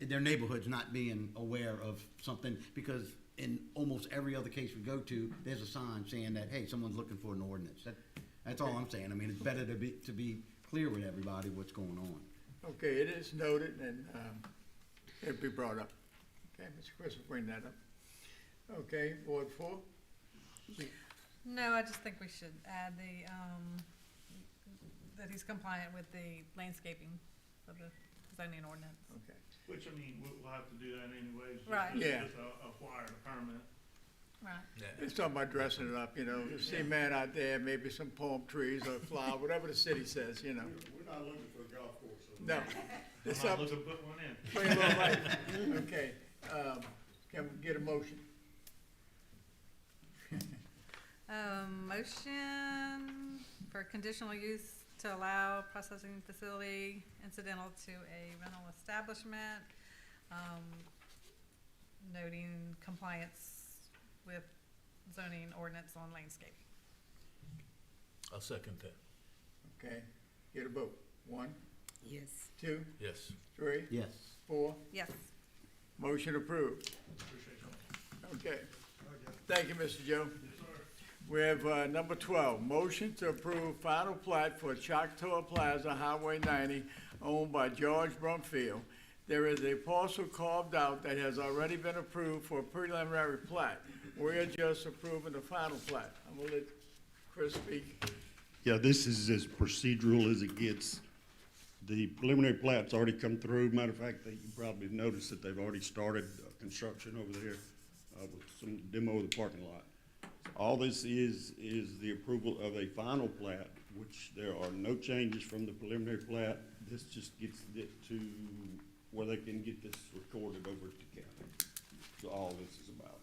their neighborhoods not being aware of something, because in almost every other case we go to, there's a sign saying that, hey, someone's looking for an ordinance. That, that's all I'm saying. I mean, it's better to be, to be clear with everybody what's going on. Okay, it is noted and, um, it'll be brought up. Okay, Mr. Chris will bring that up. Okay, Ward four? No, I just think we should add the, um, that he's compliant with the landscaping of the zoning ordinance. Okay, Which, I mean, we'll, we'll have to do that anyways. just- Right. just- Yeah. Just uh, acquire the permit. Right. it's talking about dressing it up, you know, the cement out there, maybe some palm trees or flower, whatever the city says, you know. We're not looking for a golf course. so- No, I'm it's not up, looking to put one in. plain little life. Okay, um, can we get a motion? Um, motion for conditional use to allow processing facility incidental to a rental establishment, um, noting compliance with zoning ordinance on landscaping. I'll second that, Okay, get a vote. One, Yes. two, yes. three, Yes. four. Yes, Motion approved. Appreciate y'all. Okay. Thank you, Mr. Joe. We have uh, number 12, motion to approve final plat for Choctaw Plaza Highway 90 owned by George Brumfield. There is a parcel carved out that has already been approved for preliminary plat. We're just approving the final plat. I'm gonna let Chris speak. Yeah, this is as procedural as it gets. The preliminary plat's already come through. Matter of fact, that you probably noticed that they've already started uh, construction over there uh, with some demo of the parking lot. All this is, is the approval of a final plat, which there are no changes from the preliminary plat. This just gets it to where they can get this recorded over at the county. That's all this is about.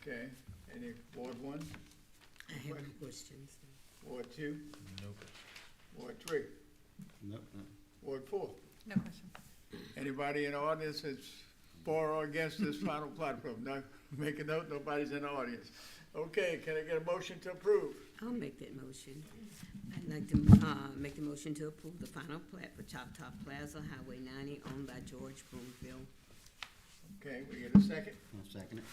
Okay, any Ward 1, I have no questions. Ward 2, Nope. Ward 3, Nope, nope. Ward 4? no question. Anybody in the audience that's for or against this final plat approval? Now, make a note, nobody's in the audience. Okay, can I get a motion to approve? I'll make that motion. I'd like to, uh, make the motion to approve the final plat for Choctaw Plaza Highway ninety owned by George Broomfield. Okay, we get a second, I'll second it.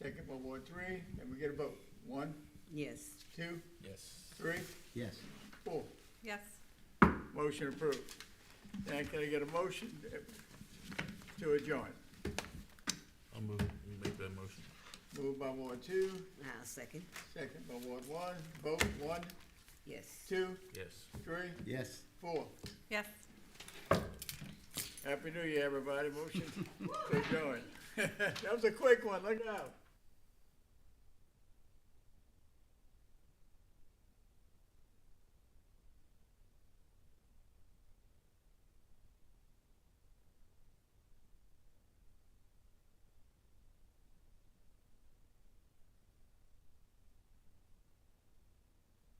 second by Ward three, and we get a vote. One, Yes. two, Yes. three, Yes. four. Yes, Motion approved. Now, can I get a motion to adjourn? I'll move, it. make that motion. Moved by Ward two, I'll second. second by Ward one, vote one, Yes. two, Yes. three, Yes. four. yes. Happy New Year, everybody. Motion to adjourn. That was a quick one, look out.